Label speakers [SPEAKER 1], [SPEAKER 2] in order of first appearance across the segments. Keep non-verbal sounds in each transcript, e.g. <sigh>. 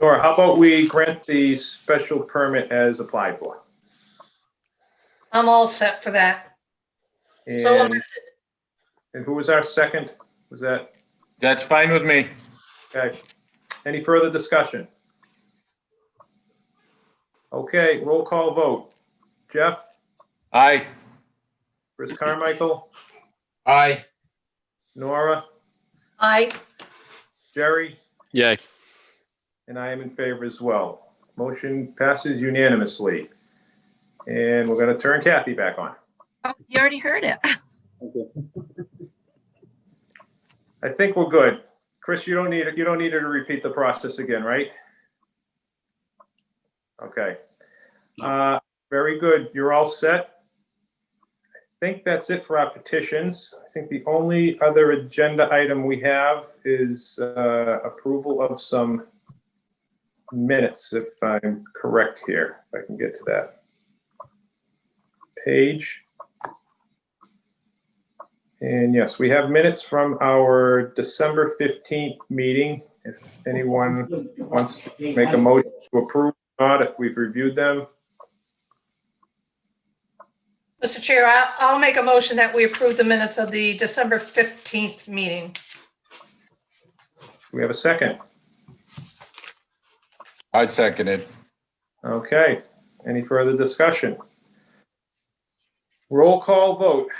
[SPEAKER 1] Laura, how about we grant the special permit as applied for?
[SPEAKER 2] I'm all set for that. So
[SPEAKER 1] And,
[SPEAKER 2] amended.
[SPEAKER 1] and who was our second? Was that,
[SPEAKER 3] That's fine with me.
[SPEAKER 1] okay. Any further discussion? Okay, roll call vote. Jeff,
[SPEAKER 3] Aye.
[SPEAKER 1] Chris Carmichael,
[SPEAKER 4] Aye.
[SPEAKER 1] Nora,
[SPEAKER 2] Aye,
[SPEAKER 1] Jerry,
[SPEAKER 5] Yay.
[SPEAKER 1] and I am in favor as well. Motion passes unanimously. And we're gonna turn Kathy back on.
[SPEAKER 6] Oh, You already heard it. <laughs>
[SPEAKER 1] I think we're good. Chris, you don't need, you don't need her to repeat the process again, right? Okay. Uh, Very good. You're all set. I think that's it for our petitions. I think the only other agenda item we have is uh, approval of some minutes, if I'm correct here, if I can get to that. Page. And yes, we have minutes from our December 15th meeting. If anyone wants to make a motion to approve, or not if we've reviewed them.
[SPEAKER 2] Mr. Chair, I- I'll make a motion that we approve the minutes of the December 15th meeting.
[SPEAKER 1] We have a second.
[SPEAKER 3] I second it.
[SPEAKER 1] Okay, any further discussion? Roll call vote.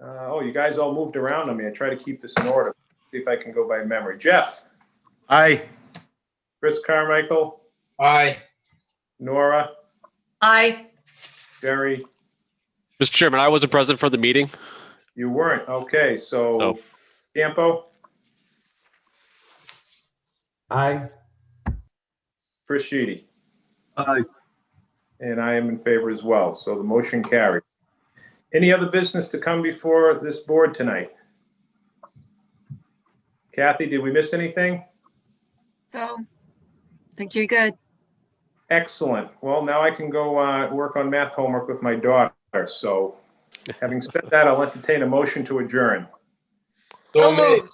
[SPEAKER 1] Uh, Oh, you guys all moved around on me. I try to keep this in order. See if I can go by memory. Jeff,
[SPEAKER 3] Aye.
[SPEAKER 1] Chris Carmichael,
[SPEAKER 4] Aye.
[SPEAKER 1] Nora,
[SPEAKER 2] Aye,
[SPEAKER 1] Jerry,
[SPEAKER 5] Mr. Chairman, I wasn't present for the meeting.
[SPEAKER 1] you weren't. Okay, so
[SPEAKER 5] No.
[SPEAKER 1] Campo,
[SPEAKER 7] Aye.
[SPEAKER 1] Chris Sheedy.
[SPEAKER 7] Aye.
[SPEAKER 1] And I am in favor as well, so the motion carried. Any other business to come before this board tonight? Kathy, did we miss anything?
[SPEAKER 6] So think you're good.
[SPEAKER 1] Excellent. Well, now I can go uh, work on math homework with my daughter, so having said that, I'll entertain a motion to adjourn.
[SPEAKER 2] so
[SPEAKER 4] So moved.
[SPEAKER 2] moved.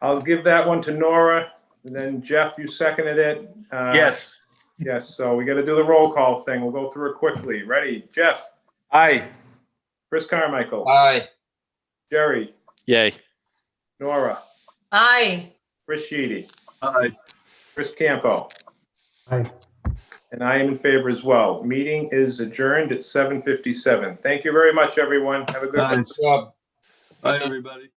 [SPEAKER 1] I'll give that one to Nora, and then Jeff, you seconded it. Uh,
[SPEAKER 3] Yes.
[SPEAKER 1] Yes, so we got to do the roll call thing. We'll go through it quickly. Ready? Jeff,
[SPEAKER 3] Aye.
[SPEAKER 1] Chris Carmichael,
[SPEAKER 4] Aye.
[SPEAKER 1] Jerry,
[SPEAKER 5] Yay.
[SPEAKER 1] Nora,
[SPEAKER 2] Aye.
[SPEAKER 1] Chris Sheedy.
[SPEAKER 7] Aye.
[SPEAKER 1] Chris Campo.
[SPEAKER 7] Aye.
[SPEAKER 1] And I am in favor as well. Meeting is adjourned at 7:57. Thank you very much, everyone. Have a good one.
[SPEAKER 7] Aye.
[SPEAKER 4] Good job.
[SPEAKER 7] Aye, everybody.